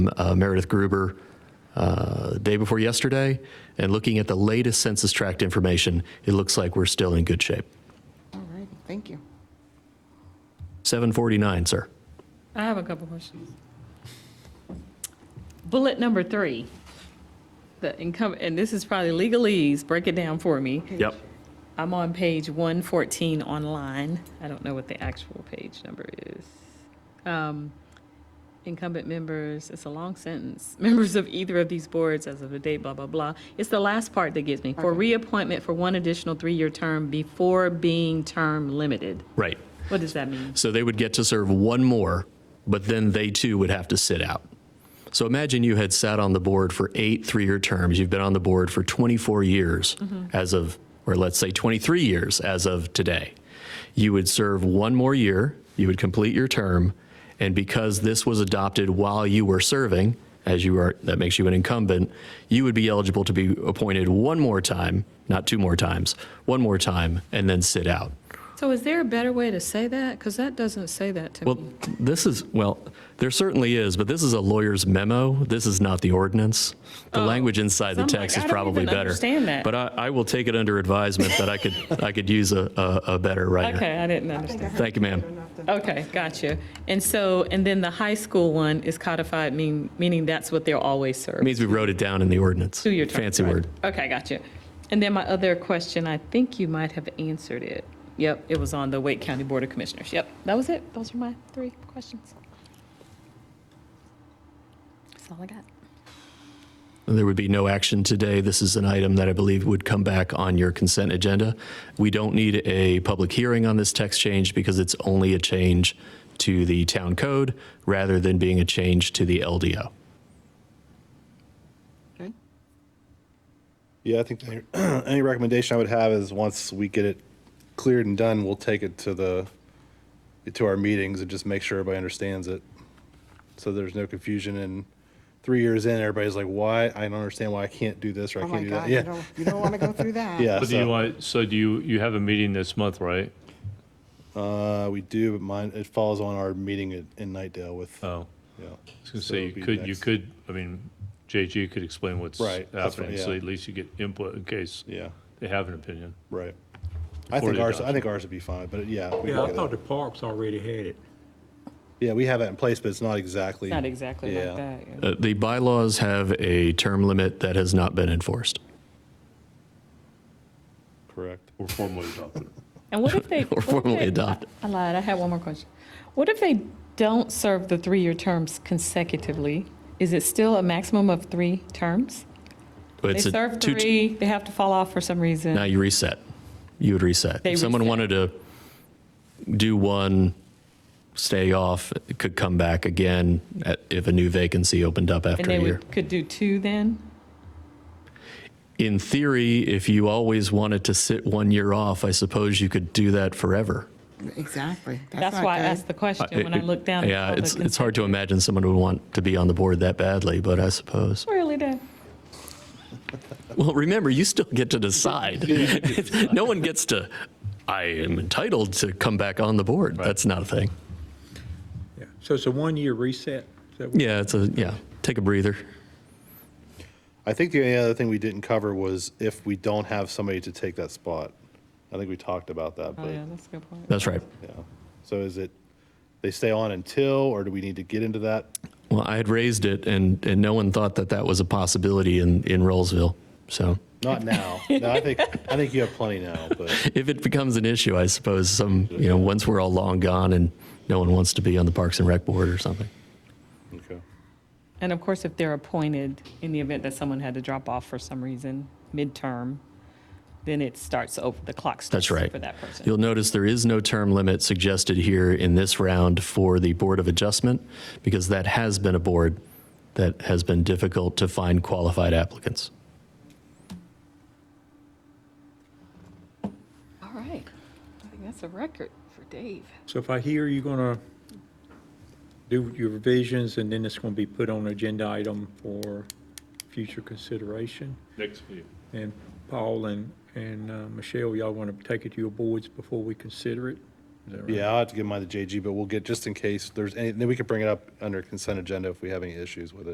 uh, Meredith Gruber uh, the day before yesterday, and looking at the latest census tract information, it looks like we're still in good shape. All right, thank you. 749, sir. I have a couple questions. Bullet number three, the income, and this is probably legalese, break it down for me. Yep. I'm on page 114 online. I don't know what the actual page number is. Um, Incumbent members, it's a long sentence. Members of either of these boards as of the date, blah, blah, blah. It's the last part that gets me. For reappointment for one additional three-year term before being term limited. Right. What does that mean? So they would get to serve one more, but then they too would have to sit out. So imagine you had sat on the board for eight three year terms. You've been on the board for 24 years as of, or let's say 23 years as of today. You would serve one more year, you would complete your term, and because this was adopted while you were serving, as you are, that makes you an incumbent, you would be eligible to be appointed one more time, not two more times, one more time, and then sit out. So is there a better way to say that? Because that doesn't say that to Well, me. this is, well, there certainly is, but this is a lawyer's memo. This is not the ordinance. The language inside the I'm like, text is Oh, I don't probably even better. understand that. But I, I will take it under advisement that I could, I could use a, a a better writer. Okay, I didn't understand. Thank you, ma'am. Okay, gotcha. And so, and then the high school one is codified, mean, meaning that's what they're always It served. means we wrote it down in the ordinance. Two-year term. Fancy right. word. Okay, gotcha. And then my other question, I think you might have answered it. Yep, it was on the Wake County Board of Commissioners. Yep, that was it. Those are my three questions. That's all I got. There would be no action today. This is an item that I believe would come back on your consent agenda. We don't need a public hearing on this text change because it's only a change to the town code rather than being a change to the LDO. Okay. Yeah, I think the- any recommendation I would have is once we get it cleared and done, we'll take it to the, to our meetings and just make sure everybody understands it. So there's no confusion and three years in, everybody's like, why? I don't understand why I can't do this or I Oh, can't my do that. God, you Yeah, don't, you don't want to go through that. yeah. But do you so, want, so do you, you have a meeting this month, right? Uh, we do, but mine, it falls on our meeting in- in Nightdale with, Oh, yeah. I was gonna So say, it'll be you could, you next- could, I mean, JG could explain what's Right, that's what- happening, so yeah. at least you get input in case Yeah, they have an opinion. right. I Before think the ours, I adoption. think ours would be fine, but yeah. we can Yeah, get I it. thought the parks already had it. Yeah, we have that in place, but it's not exactly. Not exactly Yeah. like that. yeah. Uh, The bylaws have a term limit that has not been enforced. Correct. Or formally adopted. And what if they? what if formally they- adopt. I lied, I had one more question. What if they don't serve the three-year terms consecutively? Is it still a maximum of three terms? They It's a serve two- three, they have to fall off for some Now reason. you reset. You would reset. They If someone reset. wanted to do one, stay off, it could come back again at, if a new vacancy opened up And after a they year. would, could do two then? In theory, if you always wanted to sit one year off, I suppose you could do that forever. Exactly. That's not why I good. asked the question when I looked down. at Uh, Yeah, all the it's, it's hard to imagine someone would want to be on the board that badly, but I suppose. consent- Really, Dan? Well, remember, you still get to decide. no one gets to, I am entitled to come back on the board. That's not a thing. Yeah. So it's a one-year reset? Is that what- Yeah, it's a, yeah, take a breather. I think the only other thing we didn't cover was if we don't have somebody to take that spot. I think we talked about that, Oh, but, yeah, that's a good point. That's right. yeah. So is it, they stay on until, or do we need to get into that? Well, I had raised it and, and no one thought that that was a possibility in, in Rollsville. So Not now. No, I think, I think you have plenty now, but, if it becomes an issue, I suppose some, you know, once we're all long gone and no one wants to be on the Parks and Rec board or something. okay. And of course, if they're appointed, in the event that someone had to drop off for some reason, midterm, then it starts over, the clock starts That's right. for that person. You'll notice there is no term limit suggested here in this round for the Board of Adjustment because that has been a board that has been difficult to find qualified applicants. All right. I think that's a record for Dave. So if I hear you're going to do your revisions and then it's going to be put on agenda item for future consideration? Next meeting. And Paul and, and uh, Michelle, y'all want to take it to your boards before we consider it? Is that right? Yeah, I'll have to give mine to JG, but we'll get, just in case there's any, then we could bring it up under consent agenda if we have any issues with it.